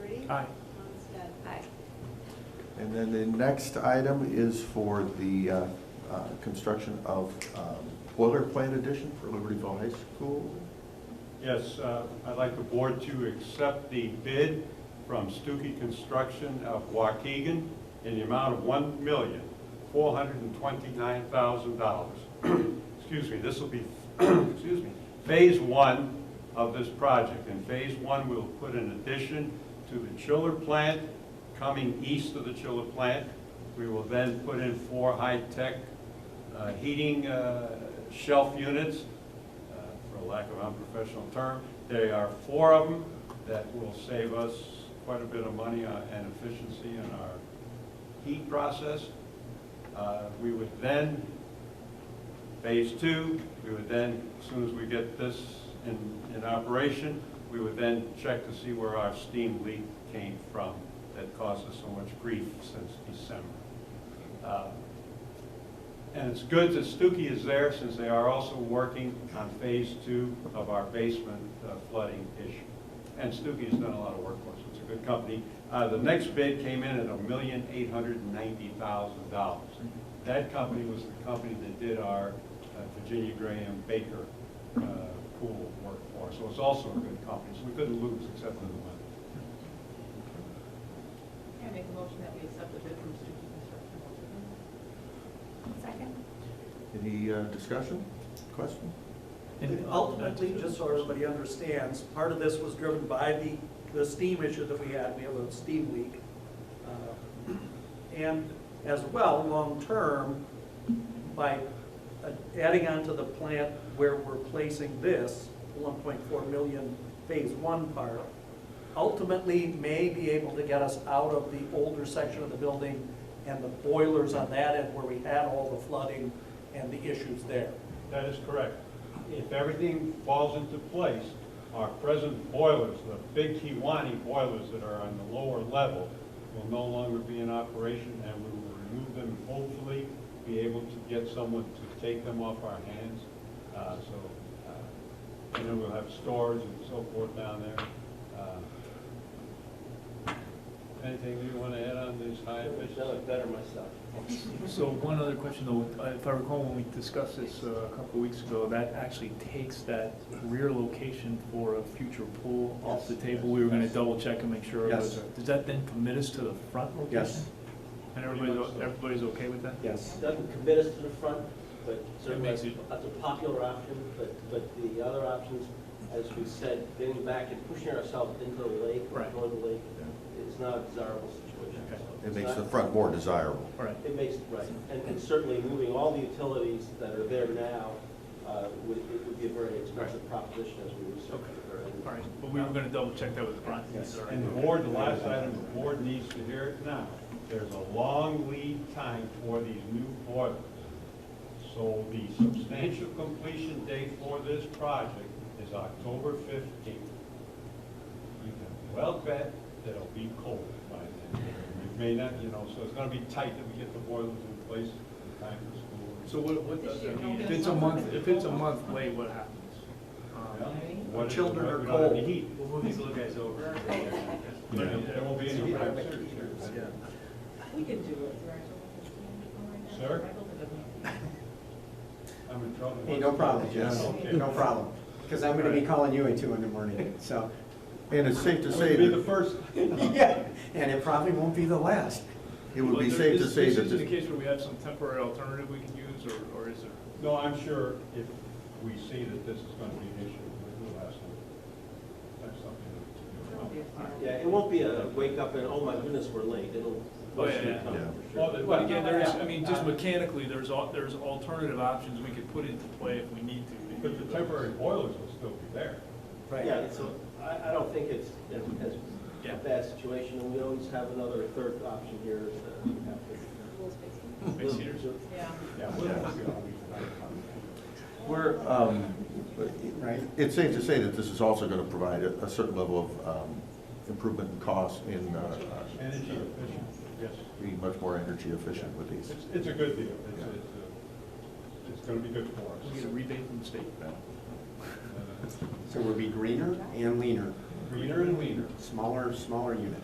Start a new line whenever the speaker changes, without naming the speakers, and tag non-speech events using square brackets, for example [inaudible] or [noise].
Aye.
Lundstedt.
Aye.
And then the next item is for the uh, uh, construction of um, boiler plant addition for Libertyville High School.
Yes, uh, I'd like the board to accept the bid from Stuckey Construction of Waukegan in the amount of one million, four hundred and twenty-nine thousand dollars. [clears throat] Excuse me, this will be, [clears throat] excuse me, phase one of this project. In phase one, we'll put an addition to the chiller plant coming east of the chiller plant. We will then put in four high-tech uh, heating uh, shelf units uh, for lack of unprofessional term. There are four of them that will save us quite a bit of money uh, and efficiency in our heat process. Uh, We would then, phase two, we would then, as soon as we get this in, in operation, we would then check to see where our steam leak came from that caused us so much grief since December. Uh, and it's good that Stuckey is there since they are also working on phase two of our basement uh, flooding issue. And Stuckey has done a lot of work for us. It's a good company. Uh, The next bid came in at a million eight hundred and ninety thousand dollars. That company was the company that did our uh, Virginia Graham Baker uh, pool work for us. So it's also a good company, so we couldn't lose except for the money.
Can I make a motion that we accept the bid from Stuckey Construction?
Second?
Any uh, discussion, question?
And ultimately, just so everybody understands, part of this was driven by the, the steam issue that we had, we have a steam leak. Uh, And as well, long-term, by uh, adding on to the plant where we're placing this, one point four million phase one part, ultimately may be able to get us out of the older section of the building and the boilers on that end where we had all the flooding and the issues there.
That is correct. If everything falls into place, our present boilers, the big Kiwani boilers that are on the lower level, will no longer be in operation, and we will remove them, and hopefully be able to get someone to take them off our hands. Uh, So, uh, and then we'll have storage and so forth down there. Uh, Anything you want to add on these high efficiency?
better myself.
So one other question though, uh, if I recall when we discussed this uh, a couple of weeks ago, that actually takes that rear location for a future pool off the table. We were gonna double check and make sure. it was-
Yes.
Does that then commit us to the front location?
Yes.
And everybody's, o- everybody's okay with that?
Yes.
Doesn't commit us to the front, but certainly
makes
that's
it-
a popular option, but, but the other options, as we said, getting back and pushing ourselves into the lake, or
Right.
going to the lake, is not a desirable situation.
Okay.
So
It
it's
makes
not-
the front more desirable.
All right,
It makes, right, and and certainly moving all the utilities that are there now uh, would, it would be a very expensive proposition as we research it. and-
all right, but we were gonna double check that with the front.
Yes.
All right.
And the board, the last item, the board needs to hear it now. There's a long lead time for these new boilers. So the substantial completion date for this project is October fifteenth. You can well bet that it'll be cold by then. It may not, you know, so it's gonna be tight that we get the boilers in place in time for school.
So what, what,
This
does
year,
that mean?
no,
if it's a
that's-
month, if it's a month late, what happens?
Yeah?
Um,
What if-
Children are
we don't have any
cold.
heat?
We'll move these little guys over.
There there won't be any heat, I'm serious.
We can do it.
Sir? I'm in trouble.
Hey, no problem, Jess.
Yes.
Okay.
No problem. Because I'm going to be calling you at two in the morning, so.
And it's safe to
It
say
would be the
that,
first.
Yeah, and it probably won't be the last.
it would be
Well, there-
safe to
this-
say
this
that
Is the
this,
case where we have some temporary alternative we can use, or, or is there?
No, I'm sure if we see that this is going to be an issue, we'll have some, have something to do.
Yeah, it won't be a wake up and, oh my goodness, we're late, it'll.
Oh, yeah, yeah.
come,
Yeah.
for sure.
Well, but- but again, there is, I mean, just mechanically, there's, al- there's alternative options we could put into play if we need to.
But the temporary boilers will still be there.
Yeah, so I, I don't think it's as
Yeah.
a bad situation, and we always have another third option here is that we have to.
Base heaters.
Yeah.
Yeah. we'll- we'll-
we're, um,
Right.
it's safe to say that this is also going to provide a a certain level of um, improvement in cost in, uh, uh,
Energy efficient, yes.
be much more energy efficient with these.
It's, it's a good deal. It's, it's, uh, it's going to be good for
We get a
us.
rebate from the state.
Uh,
So we'll be greener and leaner,
Greener and leaner.
smaller, smaller unit.